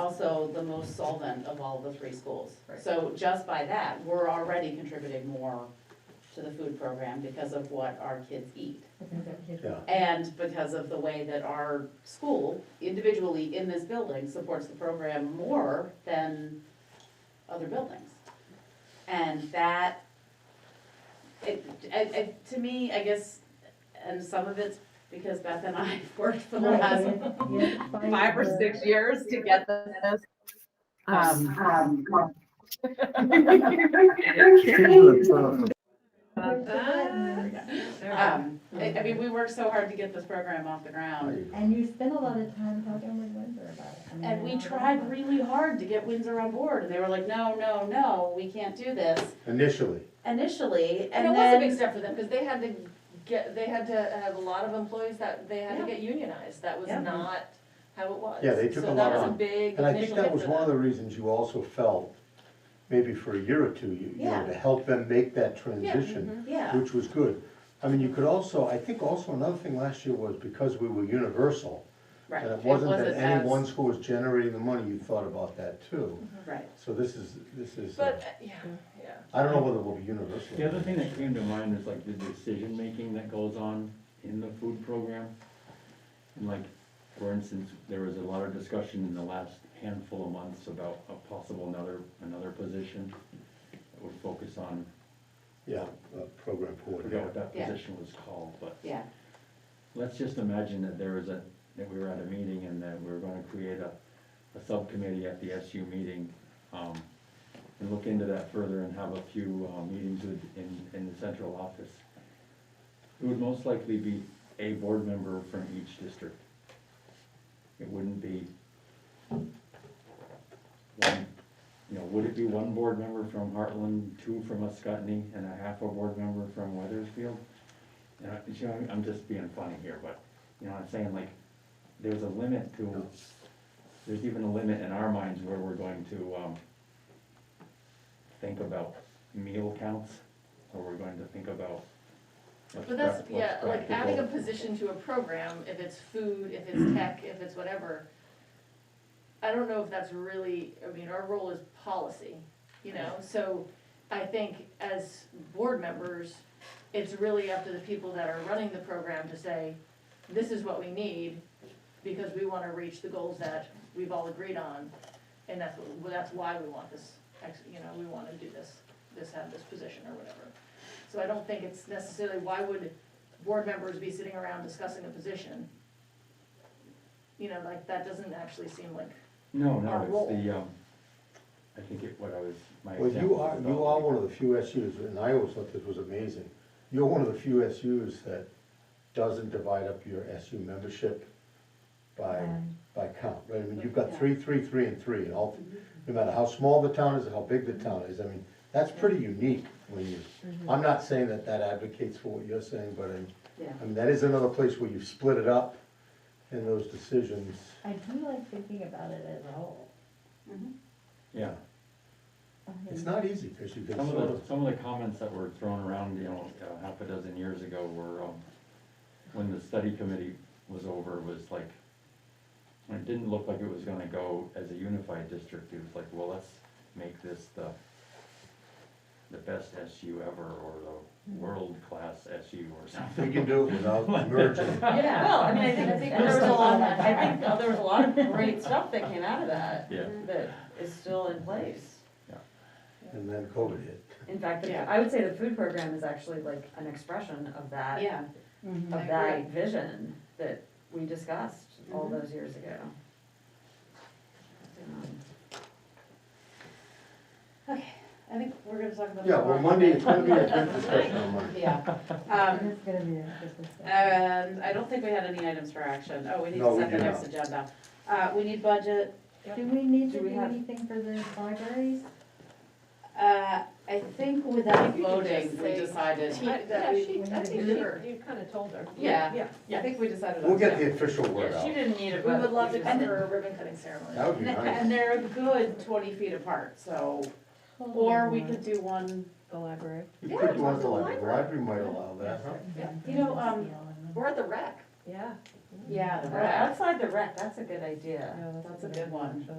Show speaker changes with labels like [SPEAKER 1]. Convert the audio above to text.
[SPEAKER 1] also the most solvent of all the three schools.
[SPEAKER 2] Right.
[SPEAKER 1] So just by that, we're already contributing more to the food program because of what our kids eat.
[SPEAKER 3] Yeah,
[SPEAKER 1] And because of the way that our school individually in this building supports the program more than other buildings. And that, it, I, I, to me, I guess, and some of it's because Beth and I worked for the last Um, five or six years to get this. Um, um, um, I, I mean, we worked so hard to get this program off the ground.
[SPEAKER 2] And you spend a lot of time talking with Windsor about it. I mean,
[SPEAKER 1] And
[SPEAKER 2] I
[SPEAKER 1] we
[SPEAKER 2] know
[SPEAKER 1] tried
[SPEAKER 2] that.
[SPEAKER 1] really hard to get Windsor on board, and they were like, no, no, no, we can't do this
[SPEAKER 3] Initially,
[SPEAKER 1] initially, and
[SPEAKER 4] And it was a
[SPEAKER 1] then.
[SPEAKER 4] big step for them, because they had to get, they had to have a lot of employees that, they had to
[SPEAKER 1] Yeah.
[SPEAKER 4] get unionized, that was
[SPEAKER 1] Yeah.
[SPEAKER 4] not how it was.
[SPEAKER 3] Yeah, they took a
[SPEAKER 4] So
[SPEAKER 3] lot
[SPEAKER 4] that was a
[SPEAKER 3] on.
[SPEAKER 4] big
[SPEAKER 3] and I think
[SPEAKER 4] initial
[SPEAKER 3] that
[SPEAKER 4] hit
[SPEAKER 3] was
[SPEAKER 4] for
[SPEAKER 3] one of
[SPEAKER 4] them.
[SPEAKER 3] the reasons you also felt, maybe for a year or two, you, you
[SPEAKER 1] Yeah.
[SPEAKER 3] know, to help them make that transition,
[SPEAKER 1] Yeah,
[SPEAKER 3] which was good. I mean, you could also, I think also another thing last year was because we were universal,
[SPEAKER 1] right.
[SPEAKER 3] and it wasn't that any
[SPEAKER 1] as- Mm-hmm.
[SPEAKER 3] one school was generating the money, you thought about that too.
[SPEAKER 1] Right,
[SPEAKER 3] So this is, this is, uh,
[SPEAKER 4] But, uh, yeah, yeah.
[SPEAKER 3] I don't know whether we'll be universal.
[SPEAKER 5] The other thing that came to mind is like the decision-making that goes on in the food program. And like, for instance, there was a lot of discussion in the last handful of months about a possible another, another position that would focus on,
[SPEAKER 3] Yeah, uh, program
[SPEAKER 5] I forgot what
[SPEAKER 3] coordinator.
[SPEAKER 5] that
[SPEAKER 1] Yeah.
[SPEAKER 5] position was called, but
[SPEAKER 1] yeah,
[SPEAKER 5] let's just imagine that there was a, that we were at a meeting and that we were gonna create a, a subcommittee at the SU meeting, um, and look into that further and have a few, uh, meetings with, in, in the central office. It would most likely be a board member from each district. It wouldn't be one, you know, would it be one board member from Heartland, two from Ascutney, and a half a board member from Weathersfield? And I, you know, I'm just being funny here, but, you know, I'm saying like, there's a limit to, there's even a limit in our minds where we're going to, um, think about meal counts, or we're going to think about. what's
[SPEAKER 4] But that's,
[SPEAKER 5] prac- what's
[SPEAKER 4] yeah, like adding a
[SPEAKER 5] practical.
[SPEAKER 4] position to a program, if it's food, if it's tech, if it's whatever, I don't know if that's really, I mean, our role is policy, you know, so I think as board members, it's really up to the people that are running the program to say, this is what we need, because we wanna reach the goals that we've all agreed on, and that's, what- well, that's why we want this, ex- you know, we wanna do this, this, have this position or whatever. So I don't think it's necessarily, why would board members be sitting around discussing a position? You know, like, that doesn't actually seem like,
[SPEAKER 5] No,
[SPEAKER 4] our
[SPEAKER 5] no,
[SPEAKER 4] role.
[SPEAKER 5] it's the, um, I think it, what I was, my
[SPEAKER 3] Well,
[SPEAKER 5] example.
[SPEAKER 3] you are,
[SPEAKER 5] was
[SPEAKER 3] you
[SPEAKER 5] about,
[SPEAKER 3] are
[SPEAKER 5] like,
[SPEAKER 3] one of the few SUs, and I always thought this was amazing. You're one of the few SUs that doesn't divide up your SU membership by,
[SPEAKER 2] Um,
[SPEAKER 3] by count, right? I mean, you've
[SPEAKER 1] Yeah.
[SPEAKER 3] got three, three, three, and three, and all, no matter how small the town is, or how big the town is, I mean, that's pretty unique when you, I'm not saying that that advocates for what you're saying, but I,
[SPEAKER 1] yeah.
[SPEAKER 3] I mean, that is another place where you've split it up in those decisions.
[SPEAKER 2] I do like thinking about it as a whole.
[SPEAKER 1] Mhm.
[SPEAKER 3] Mm-hmm.
[SPEAKER 5] Yeah,
[SPEAKER 2] I mean,
[SPEAKER 3] It's not easy, because you can
[SPEAKER 5] some
[SPEAKER 3] sort
[SPEAKER 5] of
[SPEAKER 3] of,
[SPEAKER 5] the, some of the comments that were thrown around, you know, uh, half a dozen years ago were, um, when the study committee was over, was like, when it didn't look like it was gonna go as a unified district, it was like, well, let's make this the, the best SU ever, or the world-class SU or something.
[SPEAKER 3] we can do it without merging.
[SPEAKER 4] yeah, well, I mean, I think, I think there was a lot, I think there was a lot of great stuff that came out of that,
[SPEAKER 5] Yeah,
[SPEAKER 6] that is still in place.
[SPEAKER 3] And then COVID hit.
[SPEAKER 6] In fact, the-
[SPEAKER 1] Yeah.
[SPEAKER 6] I would say the food program is actually like an expression of that,
[SPEAKER 1] Yeah,
[SPEAKER 6] of that vision that we discussed all
[SPEAKER 4] Mm-hmm.
[SPEAKER 1] Mhm.
[SPEAKER 6] those years ago. Um,
[SPEAKER 1] I think we're gonna talk about.
[SPEAKER 3] Yeah, well,
[SPEAKER 1] tomorrow.
[SPEAKER 3] Monday, it's gonna be a good discussion on Monday.
[SPEAKER 1] Yeah, um,
[SPEAKER 2] It's gonna be a good discussion.
[SPEAKER 1] and I don't think we had any items for action, oh, we need
[SPEAKER 3] No,
[SPEAKER 1] to
[SPEAKER 3] we
[SPEAKER 1] set the
[SPEAKER 3] do
[SPEAKER 1] next
[SPEAKER 3] not.
[SPEAKER 1] agenda. Uh, we need budget,
[SPEAKER 2] Do we need to
[SPEAKER 6] Do we
[SPEAKER 2] do
[SPEAKER 6] have-
[SPEAKER 2] anything for the libraries?
[SPEAKER 1] uh, I think without
[SPEAKER 4] You could just
[SPEAKER 1] voting, we
[SPEAKER 4] say-
[SPEAKER 1] decided.
[SPEAKER 4] Yeah, she, I think she,
[SPEAKER 2] Sure.
[SPEAKER 4] you kind of told her.
[SPEAKER 1] Yeah.
[SPEAKER 4] Yeah.
[SPEAKER 1] I think we decided. on
[SPEAKER 3] We'll get
[SPEAKER 1] that.
[SPEAKER 3] the official word
[SPEAKER 6] Yeah, she
[SPEAKER 3] out.
[SPEAKER 6] didn't need it,
[SPEAKER 4] We
[SPEAKER 6] but.
[SPEAKER 4] would love
[SPEAKER 6] we
[SPEAKER 4] to
[SPEAKER 6] just-
[SPEAKER 4] come for a ribbon cutting ceremony.
[SPEAKER 3] That would be nice.
[SPEAKER 1] And they're a good twenty feet apart, so, or we could do one,
[SPEAKER 7] the library.
[SPEAKER 3] You could do one at the library, the library might allow that, huh?
[SPEAKER 1] you know, um,
[SPEAKER 4] We're at the rec.
[SPEAKER 7] Yeah.
[SPEAKER 1] yeah, the
[SPEAKER 6] Uh,
[SPEAKER 1] rec.
[SPEAKER 6] Outside the rec, that's a good idea.
[SPEAKER 7] Yeah,
[SPEAKER 1] That's a good one.
[SPEAKER 7] actually.